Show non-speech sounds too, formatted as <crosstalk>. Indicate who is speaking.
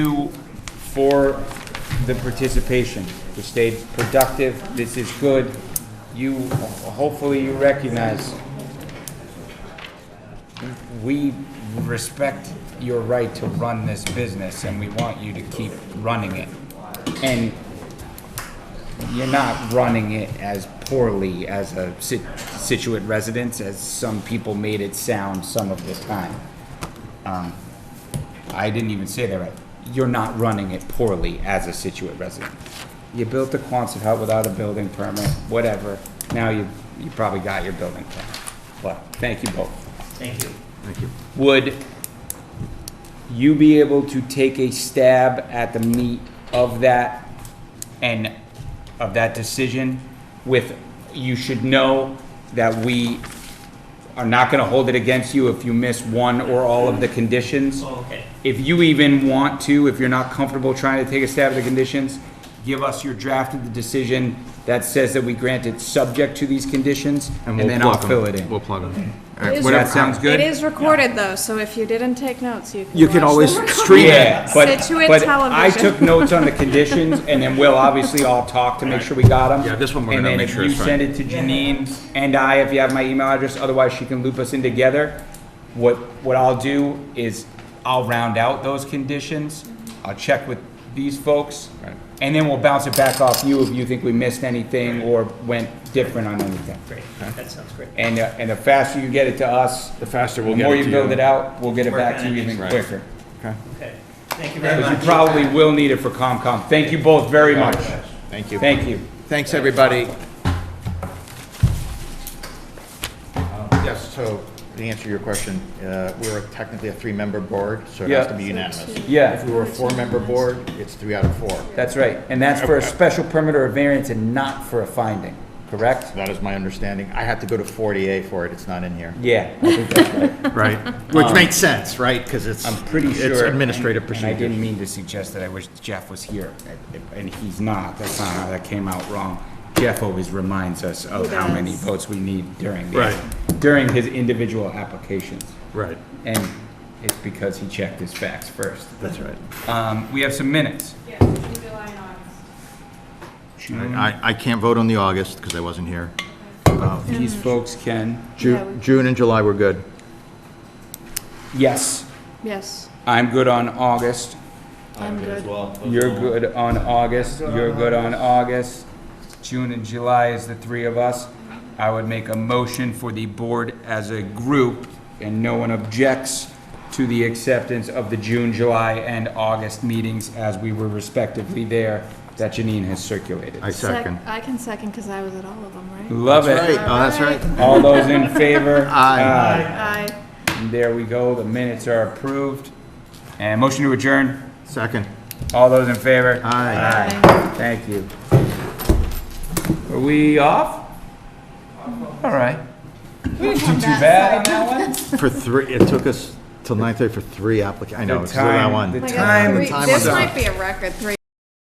Speaker 1: you for the participation. You stayed productive. This is good. You, hopefully you recognize we respect your right to run this business and we want you to keep running it. And you're not running it as poorly as a Sit- Situate residents, as some people made it sound some of the time. Um, I didn't even say that right. You're not running it poorly as a Situate resident. You built the Quonset hut without a building permit, whatever. Now you, you probably got your building permit. But thank you both
Speaker 2: Thank you.
Speaker 1: would you be able to take a stab at the meat of that and of that decision with, you should know that we are not gonna hold it against you if you miss one or all of the conditions?
Speaker 2: Okay.
Speaker 1: If you even want to, if you're not comfortable trying to take a stab at the conditions, give us your draft of the decision that says that we grant it subject to these conditions, and
Speaker 3: we'll
Speaker 1: then I'll
Speaker 3: plug 'em.
Speaker 1: fill it in.
Speaker 3: We'll plug them.
Speaker 4: It is
Speaker 1: That
Speaker 4: recorded.
Speaker 1: sounds good?
Speaker 4: It is recorded though, so if you didn't take notes, you can.
Speaker 3: You can
Speaker 4: watch
Speaker 3: always
Speaker 4: the recording.
Speaker 3: stream it.
Speaker 1: Yeah, but,
Speaker 4: Situate
Speaker 1: but I
Speaker 4: television.
Speaker 1: took notes on the conditions, and then we'll obviously all talk to make sure we got them.
Speaker 3: Yeah, this one we're gonna make sure
Speaker 1: And
Speaker 3: it's fine.
Speaker 1: then if you send it to Janine and I, if you have my email address, otherwise she can loop us in together. What, what I'll do is I'll round out those conditions, I'll check with these folks, and then we'll bounce it back off you if you think we missed anything or went different on anything.
Speaker 2: Great. That sounds great.
Speaker 1: And, uh, and the faster you get it to us, the
Speaker 3: The faster we'll get
Speaker 1: more
Speaker 3: it
Speaker 1: you
Speaker 3: to
Speaker 1: build it
Speaker 3: you.
Speaker 1: out, we'll get it
Speaker 2: Work
Speaker 1: back
Speaker 2: on
Speaker 1: to you
Speaker 2: it.
Speaker 1: even
Speaker 3: Right.
Speaker 1: quicker.
Speaker 2: Okay. Thank you very
Speaker 1: Because
Speaker 2: much.
Speaker 1: you probably will need it for COMCOM. Thank you both very much.
Speaker 3: Thank you.
Speaker 1: Thank you.
Speaker 3: Thanks, everybody. Um, Yes, so to answer your question, uh, we're technically a three-member board, so it has to be
Speaker 1: Yeah.
Speaker 3: unanimous. If
Speaker 1: Yeah,
Speaker 3: we were a four-member board, it's three out of four.
Speaker 1: that's right. And that's for a special permit or a variance and not for a finding, correct?
Speaker 3: That is my understanding. I had to go to 40A for it, it's not in here.
Speaker 1: Yeah, I think that's right.
Speaker 3: <laughs> Right. <laughs> Which makes sense, right? Because it's,
Speaker 1: I'm pretty sure.
Speaker 3: it's administrative
Speaker 1: and- and I
Speaker 3: procedure.
Speaker 1: didn't mean to suggest that I wish Jeff was here, and he's not. That's not how that came out wrong. Jeff always reminds us of
Speaker 4: He
Speaker 1: how many
Speaker 4: does.
Speaker 1: votes we need during, the-
Speaker 3: Right.
Speaker 1: during his individual applications.
Speaker 3: Right,
Speaker 1: And it's because he checked his facts first.
Speaker 3: that's right.
Speaker 1: Um, We have some minutes. Mm-hmm.
Speaker 3: I, I can't vote on the August because I wasn't here.
Speaker 1: These folks can.
Speaker 4: Yeah, we-
Speaker 3: Ju- June and July were good.
Speaker 1: Yes,
Speaker 4: Yes,
Speaker 1: I'm good on August.
Speaker 4: I'm good.
Speaker 1: You're good on August. You're good on August. June and July is the three of us. I would make a motion for the board as a group, and no one objects to the acceptance of the June, July, and August meetings as we were respectively there that Janine has circulated.
Speaker 3: I second.
Speaker 4: Sec- I can second because I was at all of them, right?
Speaker 1: Love
Speaker 3: Right,
Speaker 1: it.
Speaker 3: oh, that's right.
Speaker 1: All those
Speaker 3: <laughs>
Speaker 1: in favor?
Speaker 3: Aye.
Speaker 4: Aye.
Speaker 1: And There we go. The minutes are approved. And motion to adjourn.
Speaker 3: Second.
Speaker 1: All those in favor?
Speaker 3: Aye.
Speaker 1: Aye. Thank you. Are we off? All right. We didn't do too bad on that one.
Speaker 3: For three, it took us till 9:30 for three applications. I know,
Speaker 1: The
Speaker 3: it's the way I
Speaker 1: time-
Speaker 3: won.
Speaker 1: the
Speaker 4: Oh my God,
Speaker 1: Time-
Speaker 4: three-
Speaker 3: time
Speaker 4: This
Speaker 3: was up.
Speaker 4: might be a record, three